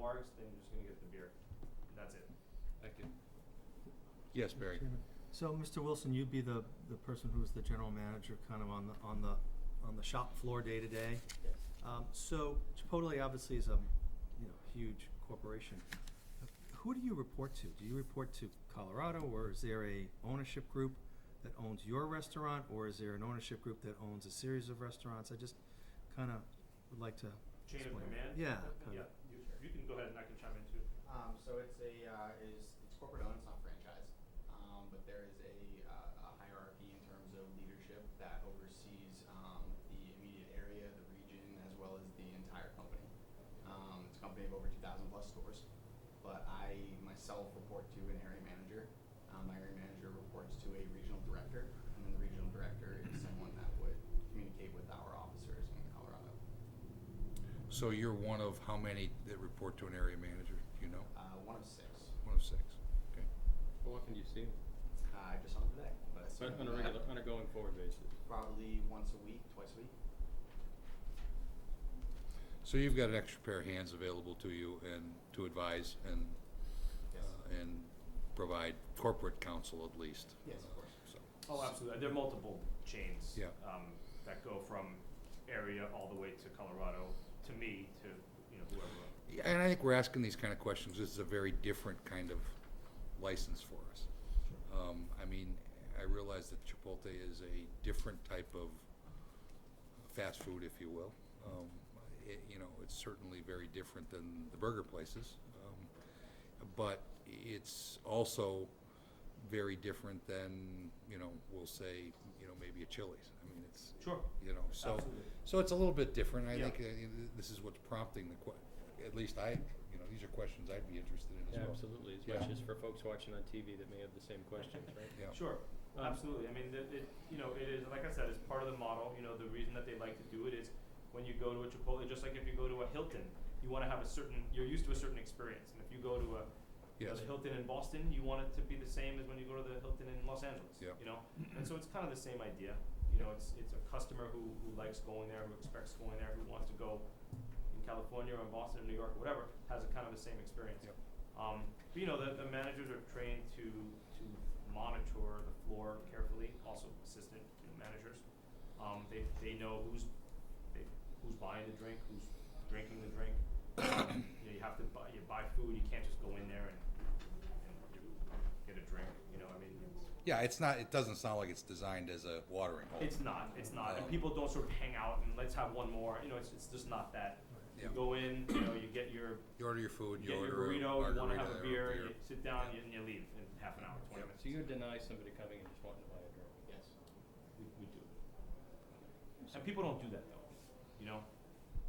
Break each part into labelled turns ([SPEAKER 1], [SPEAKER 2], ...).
[SPEAKER 1] cars, then you're just gonna get the beer. And that's it.
[SPEAKER 2] I can. Yes, Barry.
[SPEAKER 3] Chairman. So, Mr. Wilson, you'd be the, the person who's the general manager kind of on the, on the, on the shop floor day to day.
[SPEAKER 1] Yes.
[SPEAKER 3] Um, so Chipotle obviously is a, you know, huge corporation. Who do you report to? Do you report to Colorado or is there a ownership group that owns your restaurant or is there an ownership group that owns a series of restaurants? I just kind of would like to
[SPEAKER 1] Chain of
[SPEAKER 3] explain.
[SPEAKER 1] command?
[SPEAKER 3] Yeah, kinda.
[SPEAKER 1] Yeah, you, you can go ahead and I can chime in too.
[SPEAKER 4] Um, so it's a, uh, is, it's corporate owned, it's not franchise, um, but there is a, uh, a hierarchy in terms of leadership that oversees, um, the immediate area, the region, as well as the entire company. Um, it's a company of over two thousand plus stores, but I myself report to an area manager. Um, my area manager reports to a regional director, and then the regional director is someone that would communicate with our officers in Colorado.
[SPEAKER 2] So you're one of how many that report to an area manager, do you know?
[SPEAKER 4] Uh, one of six,
[SPEAKER 2] One of six, okay.
[SPEAKER 5] How often do you see them?
[SPEAKER 4] uh, I just saw him today, but I saw him
[SPEAKER 5] On a regular, on a going forward basis?
[SPEAKER 4] probably once a week, twice a week.
[SPEAKER 2] So you've got an extra pair of hands available to you and to advise and,
[SPEAKER 4] Yes.
[SPEAKER 2] uh, and provide corporate counsel at least.
[SPEAKER 4] Yes, of course.
[SPEAKER 2] So,
[SPEAKER 1] Oh, absolutely. There are multiple chains.
[SPEAKER 2] Yeah.
[SPEAKER 1] Um, that go from area all the way to Colorado, to me, to, you know, whoever.
[SPEAKER 2] yeah, and I think we're asking these kind of questions, this is a very different kind of license for us. Um, I mean, I realize that Chipotle is a different type of fast food, if you will. Um, it, you know, it's certainly very different than the burger places, um, but it's also very different than you know, we'll say, you know, maybe a Chili's. I mean, it's
[SPEAKER 1] Sure.
[SPEAKER 2] you know, so
[SPEAKER 1] Absolutely.
[SPEAKER 2] so it's a little bit different. I
[SPEAKER 1] Yeah.
[SPEAKER 2] think uh, this is what's prompting the que- at least I, you know, these are questions I'd be interested in as well.
[SPEAKER 5] Absolutely, as
[SPEAKER 2] Yeah.
[SPEAKER 5] much as for folks watching on TV that may have the same questions, right?
[SPEAKER 2] Yeah.
[SPEAKER 1] Sure,
[SPEAKER 5] Um,
[SPEAKER 1] absolutely. I mean, it, it, you know, it is, like I said, it's part of the model. You know, the reason that they like to do it is when you go to a Chipotle, just like if you go to a Hilton, you want to have a certain, you're used to a certain experience. And if you go to a, you know,
[SPEAKER 2] Yes.
[SPEAKER 1] the Hilton in Boston, you want it to be the same as when you go to the Hilton in Los Angeles.
[SPEAKER 2] Yeah.
[SPEAKER 1] You know, and so it's kind of the same idea. You know, it's it's a customer who, who likes going there, who expects going there, who wants to go in California or in Boston or New York, or whatever, has a kind of the same experience.
[SPEAKER 2] Yep.
[SPEAKER 1] Um, but you know, the, the managers are trained to to monitor the floor carefully. Also, assistant you know, managers, um, they they know who's they, who's buying the drink, who's drinking the drink. Um, you know, you have to buy you buy food. You can't just go in there and, and get a drink. You know, I mean, it's,
[SPEAKER 2] Yeah, it's not. It doesn't sound like it's designed as a watering hole.
[SPEAKER 1] it's not. It's not. And
[SPEAKER 2] Um,
[SPEAKER 1] people don't sort of hang out and let's have one more. You know, it's it's just not that.
[SPEAKER 2] Yeah.
[SPEAKER 1] You go in. You know, you get your
[SPEAKER 2] You order your food. You,
[SPEAKER 1] get your
[SPEAKER 2] order
[SPEAKER 1] burrito.
[SPEAKER 2] A
[SPEAKER 1] You want to have
[SPEAKER 2] margarita
[SPEAKER 1] a
[SPEAKER 2] or
[SPEAKER 1] beer. You sit down you, and you leave in half an hour, twenty minutes.
[SPEAKER 5] So you deny somebody coming and just wanting to buy a drink?
[SPEAKER 4] Yes.
[SPEAKER 1] We, we do. And people don't do that though. You know.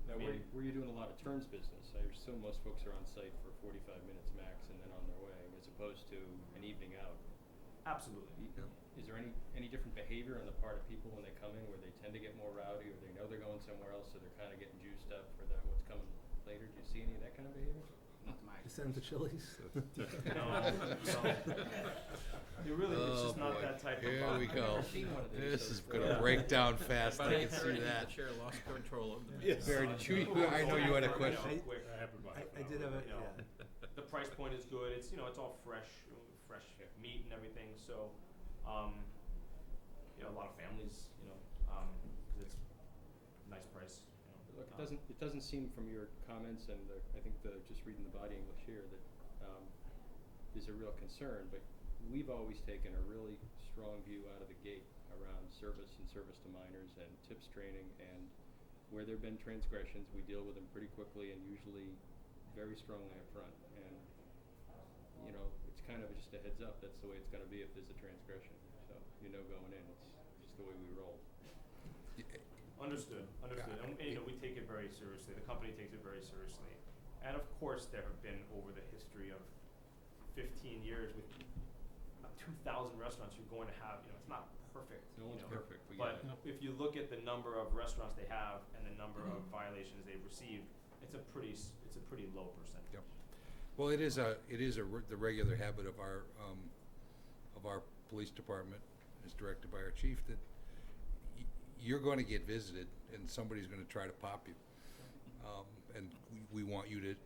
[SPEAKER 5] Now, were
[SPEAKER 1] Yeah.
[SPEAKER 5] you, were you doing a lot of terms business? I assume most folks are on site for forty-five minutes max and then on their way, as opposed to an evening out.
[SPEAKER 1] Absolutely.
[SPEAKER 5] Y- Is there any, any different behavior on the part of people when they come in where they tend to get more rowdy or they know they're going somewhere else, so they're kinda getting juiced up for that, what's coming later? Do you see any of that kind of behavior?
[SPEAKER 4] Not to my.
[SPEAKER 3] You send them to Chili's?
[SPEAKER 1] It really is
[SPEAKER 2] oh
[SPEAKER 1] just not
[SPEAKER 2] boy.
[SPEAKER 1] that type of.
[SPEAKER 2] Here
[SPEAKER 1] vibe.
[SPEAKER 2] we
[SPEAKER 5] I've
[SPEAKER 2] go.
[SPEAKER 5] never seen one of these,
[SPEAKER 2] This
[SPEAKER 5] so
[SPEAKER 2] is
[SPEAKER 5] it's
[SPEAKER 2] going to
[SPEAKER 5] really-
[SPEAKER 2] break down fast. I can see that.
[SPEAKER 6] chair lost control of the
[SPEAKER 2] Yes. Barry, did you, I know you had a question.
[SPEAKER 3] I- I, I did have a,
[SPEAKER 1] You know,
[SPEAKER 3] yeah.
[SPEAKER 1] The price point is good. It's, you know, it's all fresh, fresh meat and everything, so, um, you know, a lot of families, you know, um, 'cause it's nice price, you know.
[SPEAKER 5] Look, it
[SPEAKER 1] um,
[SPEAKER 5] doesn't, it doesn't seem from your comments and the, I think the, just reading the body English here, that, um, there's a real concern, but we've always taken a really strong view out of the gate around service and service to minors and tips training and where there've been transgressions, we deal with them pretty quickly and usually very strongly up front. And, you know, it's kind of just a heads up, that's the way it's gonna be if there's a transgression, so you know going in, it's just the way we roll.
[SPEAKER 1] Understood, understood. And, you know, we take it very seriously. The company takes it very seriously. And of course, there have been over the history of fifteen years with two thousand restaurants, you're going to have, you know, it's not perfect,
[SPEAKER 5] No
[SPEAKER 1] you
[SPEAKER 5] one's
[SPEAKER 1] know.
[SPEAKER 5] perfect, we get
[SPEAKER 1] But
[SPEAKER 5] it.
[SPEAKER 1] if you look at the number of restaurants they have and the number of violations they've received, it's a pretty, s- it's a pretty low percentage.
[SPEAKER 2] Yep. Well, it is a, it is a, re- the regular habit of our, um, of our police department, as directed by our chief, that y- you're gonna get visited and somebody's gonna try to pop you. Um, and we, we want you to